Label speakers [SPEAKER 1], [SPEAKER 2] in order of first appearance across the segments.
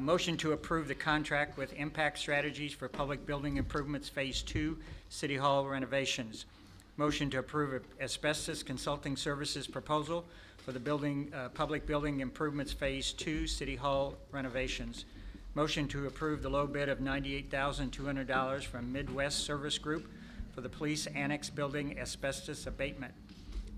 [SPEAKER 1] Motion to approve the contract with Impact Strategies for Public Building Improvements Phase Two, City Hall renovations. Motion to approve asbestos consulting services proposal for the building, uh, Public Building Improvements Phase Two, City Hall renovations. Motion to approve the low bid of ninety-eight thousand two hundred dollars from Midwest Service Group for the Police Annex Building asbestos abatement.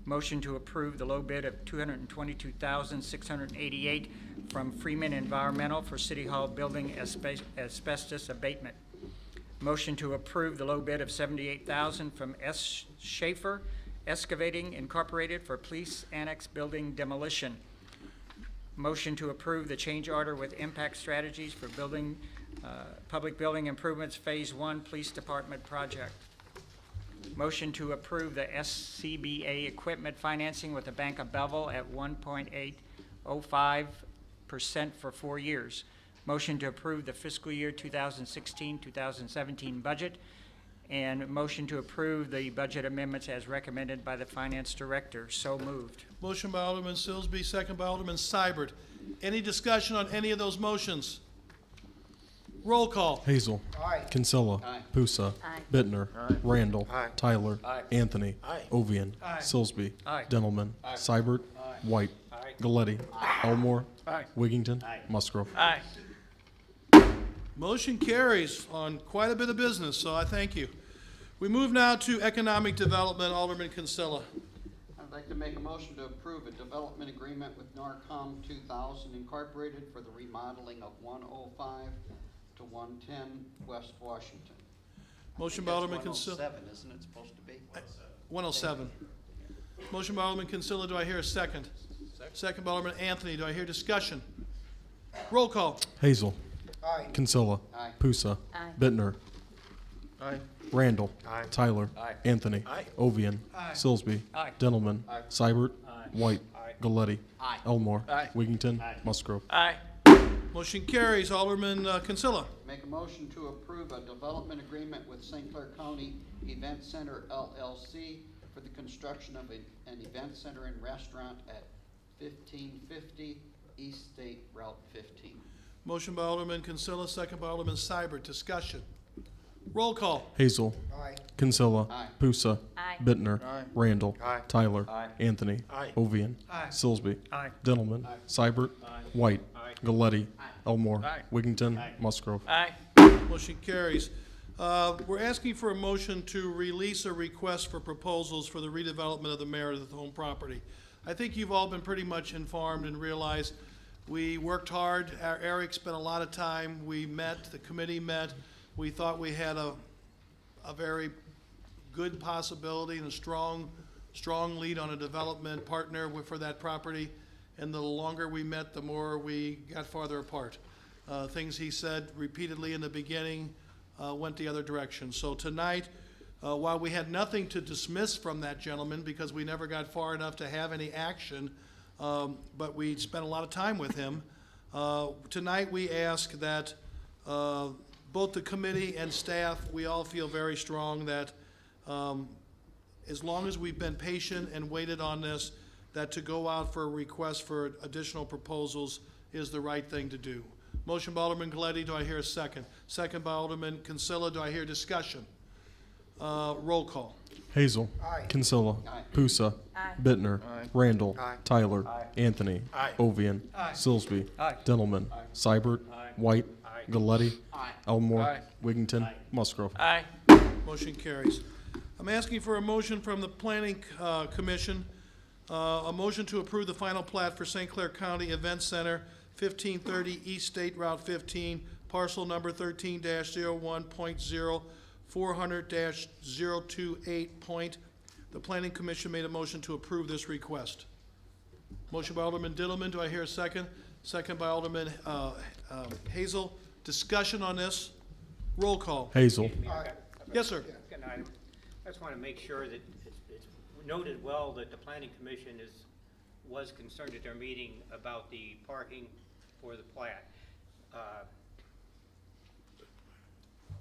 [SPEAKER 1] Motion to approve the low bid of $222,688 from Freeman Environmental for City Hall Building asbe- asbestos abatement. Motion to approve the low bid of $78,000 from S. Schaefer Excavating Incorporated for Police Annex Building demolition. Motion to approve the change order with Impact Strategies for Building, uh, Public Building Improvements Phase One Police Department project. Motion to approve the SCBA equipment financing with the Bank of Bevel at 1.805% for four years. Motion to approve the fiscal year 2016-2017 budget, and motion to approve the budget amendments as recommended by the Finance Director. So moved.
[SPEAKER 2] Motion by Alderman Silsby, second by Alderman Seibert. Any discussion on any of those motions? Roll call.
[SPEAKER 3] Hazel. Kinsella. Pusa. Bittner. Randall. Tyler. Anthony. Ovian. Silsby. Dentelman. Seibert. White. Galletti. Elmore. Wigington. Musgrove.
[SPEAKER 2] Motion carries on quite a bit of business, so I thank you. We move now to economic development, Alderman Kinsella.
[SPEAKER 4] I'd like to make a motion to approve a development agreement with NARCOM two thousand Incorporated for the remodeling of one oh five to one ten West Washington.
[SPEAKER 2] Motion by Alderman Kinsella.
[SPEAKER 4] One oh seven, isn't it supposed to be?
[SPEAKER 2] 107. Motion by Alderman Kinsella, do I hear a second? Second by Alderman Anthony, do I hear discussion? Roll call.
[SPEAKER 3] Hazel. Kinsella. Pusa. Bittner. Randall. Tyler. Anthony. Ovian. Silsby. Dentelman. Seibert. White. Galletti. Elmore. Wigington. Musgrove.
[SPEAKER 2] Motion carries, Alderman uh, Kinsella.
[SPEAKER 4] Make a motion to approve a development agreement with St. Clair County Event Center LLC for the construction of a- an event center and restaurant at fifteen fifty East State Route fifteen.
[SPEAKER 2] Motion by Alderman Kinsella, second by Alderman Seibert, discussion. Roll call.
[SPEAKER 3] Hazel. Kinsella.
[SPEAKER 4] Aye.
[SPEAKER 3] Pusa. Bittner. Randall. Tyler. Anthony. Ovian. Silsby.
[SPEAKER 1] Aye.
[SPEAKER 3] Dentelman. Seibert. White. Galletti. Elmore. Wigington. Musgrove.
[SPEAKER 2] Motion carries. Uh, We're asking for a motion to release a request for proposals for the redevelopment of the Meredith home property. I think you've all been pretty much informed and realized, we worked hard, Er- Eric spent a lot of time, we met, the committee met, we thought we had a, a very good possibility and a strong, strong lead on a development partner with- for that property. And the longer we met, the more we got farther apart. Uh, Things he said repeatedly in the beginning uh, went the other direction. So tonight, uh, while we had nothing to dismiss from that gentleman because we never got far enough to have any action, um, but we spent a lot of time with him, uh, Tonight, we ask that uh, both the committee and staff, we all feel very strong that um, as long as we've been patient and waited on this, that to go out for a request for additional proposals is the right thing to do. Motion by Alderman Galetti, do I hear a second? Second by Alderman Kinsella, do I hear discussion? Uh, Roll call.
[SPEAKER 3] Hazel. Kinsella. Pusa. Bittner. Randall. Tyler. Anthony. Ovian. Silsby. Dentelman. Seibert. White. Galletti. Elmore. Wigington. Musgrove.
[SPEAKER 2] Motion carries. I'm asking for a motion from the Planning uh, Commission, uh, a motion to approve the final plat for St. Clair County Event Center, 1530 East State Route 15, parcel number 13-01.0400-028 point. The Planning Commission made a motion to approve this request. Motion by Alderman Dillman, do I hear a second? Second by Alderman uh, um, Hazel. Discussion on this? Roll call.
[SPEAKER 3] Hazel.
[SPEAKER 2] Yes, sir.
[SPEAKER 5] Good item. I just want to make sure that it's it's noted well that the planning commission is, was concerned at their meeting about the parking for the plat. Uh,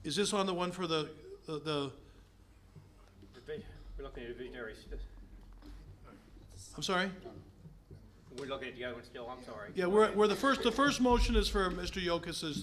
[SPEAKER 2] Is this on the one for the, the- the,
[SPEAKER 5] divi- We're looking at a visionary, s-
[SPEAKER 2] I'm sorry?
[SPEAKER 5] We're looking at the other one still, I'm sorry.
[SPEAKER 2] Yeah, we're, we're the first, the first motion is for Mr. Yocas's